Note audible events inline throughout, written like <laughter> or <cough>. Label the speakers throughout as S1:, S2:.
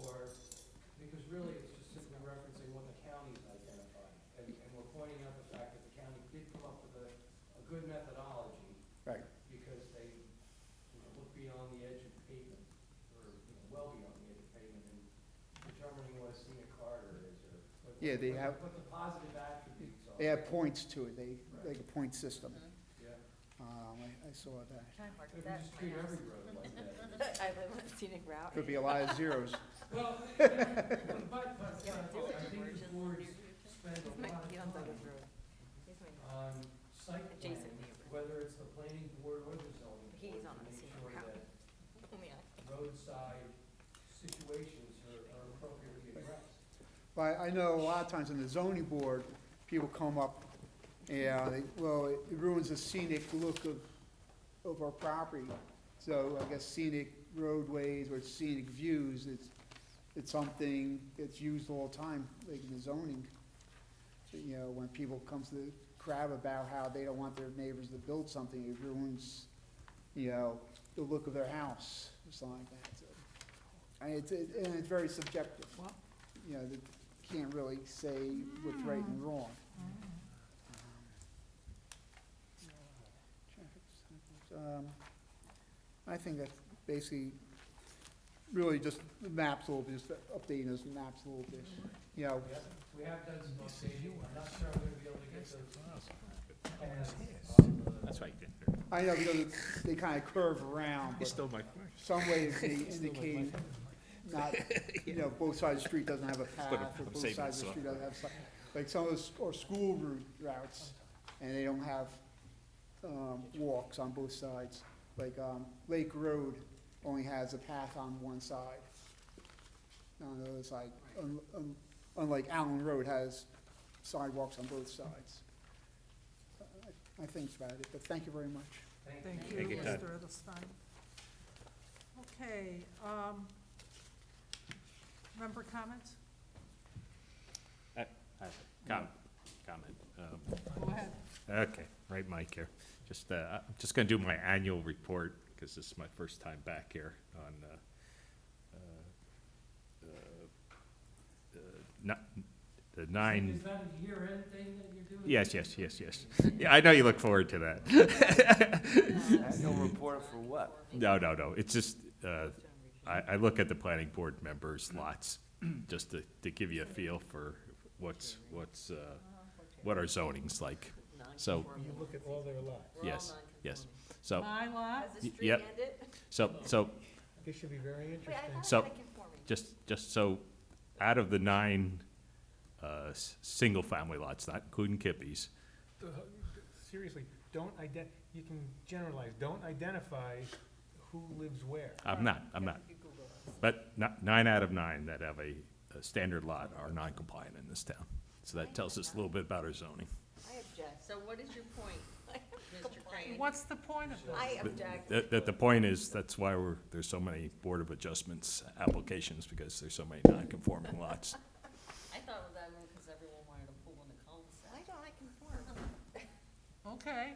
S1: or, because really, it's just simply referencing what the county's identified. And, and we're pointing out the fact that the county did come up with a, a good methodology,
S2: Right.
S1: because they, you know, looked beyond the edge of pavement, or, you know, well beyond the edge of pavement, in determining what a scenic corridor is, or. what-
S2: Yeah, they
S1: what-
S2: have-
S1: What the positive attributes are.
S2: They have points to it, they, like a point system.
S1: Yeah.
S2: Um, I, I saw that.
S3: Can I mark
S1: If we
S3: that?
S1: just treat every road like that.
S3: <laughs> I live on a scenic route.
S2: Could be a lot of zeros.
S1: Well, but, but, but,
S3: Yeah,
S1: I
S3: there's a
S1: think the
S3: diversion.
S1: boards spend
S3: Here's
S1: a
S3: <laughs> my
S1: lot of
S3: feet on Douglas
S1: time
S3: Road. Here's my-
S1: on site plan,
S3: Adjacent neighbor.
S1: whether it's the planning board or the zoning
S3: He's
S1: board,
S3: on
S1: to
S3: a
S1: make
S3: scenic
S1: sure
S3: route.
S1: that
S3: Oh, yeah.
S1: roadside situations are are appropriately addressed.
S2: But I know a lot of times in the zoning board, people come up, yeah, they, well, it ruins the scenic look of, of our property. So I guess scenic roadways or scenic views, it's, it's something that's used all the time, like in the zoning. You know, when people comes to crab about how they don't want their neighbors to build something, it ruins, you know, the look of their house, or something like that, so. And it's, it- and it's very subjective you know, that can't really say what's right and wrong. Um, I think that's basically, really just the maps a little bit, just updating those maps a little bit, you know,
S1: We have- We have done some updating, I'm not sure I'm gonna be able to get those plans on the-
S4: That's right, Dick.
S2: I know because it's- they kind of curve around,
S4: You
S2: but
S4: stole my question.
S2: some ways they indicate not, you know, both sides of the street doesn't have a
S4: I'm
S2: path, or both
S4: saving
S2: sides of the
S4: this one.
S2: street doesn't have, si- like some of those, or school route routes, and they don't have, um, walks on both sides. Like, um, Lake Road only has a path on one side. On the other side, un- un- unlike Allen Road has sidewalks on both sides. I- I think that's about it, but thank you very much.
S5: Thank
S4: Thank
S5: you,
S4: you, Todd.
S5: Mr. Edelstein. Okay, um, member comments?
S4: Com- Comment. um,
S5: Go ahead.
S4: Okay, right Mike here. Just, uh, I'm just gonna do my annual report, because this is my first time back here on, uh, uh, uh, not, the nine.
S1: Is that a year-end thing that you're doing?
S4: Yes, yes, yes, yes. Yeah, I know you look forward to that.
S6: <laughs> Annual report for what?
S4: No, no, no, it's just, uh, I, I look at the planning board members' lots, just to, to give you a feel for what's, what's, uh, what our zoning's like. So,
S3: You look at all their lots.
S4: yes, yes. So,
S5: My lot,
S3: Has the
S4: Y-
S3: street
S4: yep.
S3: ended?
S4: so, so,
S6: This should be very
S3: <laughs> Wait, I
S4: So-
S3: thought it had conforming.
S4: just, just so, out of the nine, uh, s- single-family lots, not including Kippies,
S6: Seriously, don't ident, you can generalize, don't identify who lives where.
S4: I'm not, I'm not. But not, nine out of nine that have a, a standard lot are non-compliant in this town. So that tells us a little bit about our zoning.
S3: I object.
S7: So what is your
S3: <laughs>
S7: point, Mr. Crane?
S5: what's the point of that?
S3: I object.
S4: That, that the point is, that's why we're, there's so many Board of Adjustments applications, because there's so many non-conforming lots.
S7: I thought of that one because everyone wanted a pool in the
S3: Why
S7: cul-de-sac.
S3: don't I conform?
S7: <laughs>
S5: Okay,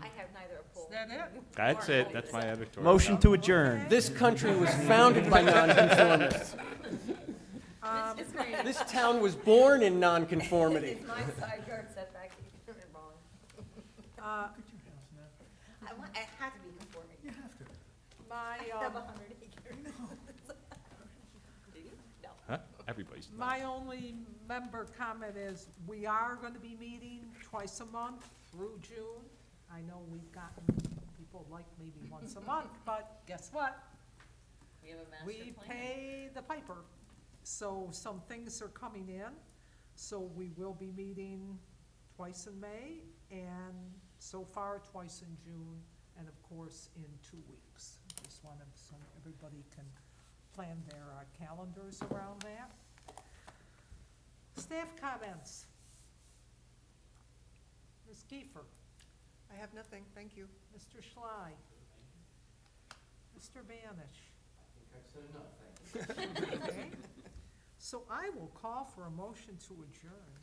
S3: I have neither a
S5: is
S3: pole.
S5: that it?
S4: That's it, that's my editorial.
S6: to adjourn.
S8: This country was founded by nonconformists.
S5: Um,
S3: Mrs. Green,
S8: This town was born in nonconformity.
S3: Is my side yard setback even wrong?
S5: uh,
S3: I want, I have to be conforming.
S5: my,
S3: I
S5: um,
S3: have a hundred acres. <laughs> Do you? No.
S4: Huh? Everybody's.
S5: My only member comment is, we are gonna be meeting twice a month through June. I know we've gotten, people like maybe once a month, but guess what?
S7: We have a master
S5: We
S7: plan.
S5: pay the piper, so some things are coming in, so we will be meeting twice in May, and so far twice in June, and of course in two weeks. Just wanted, so everybody can plan their uh, calendars around that. Staff comments. Ms. Kiefer. I have nothing, thank you. Mr. Schley. Mr. Banish.
S1: I think I've said enough, thank you.
S5: Okay. So I will call for a motion to adjourn.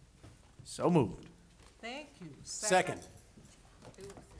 S8: So moved.
S5: Thank you.
S8: Second.
S7: Who-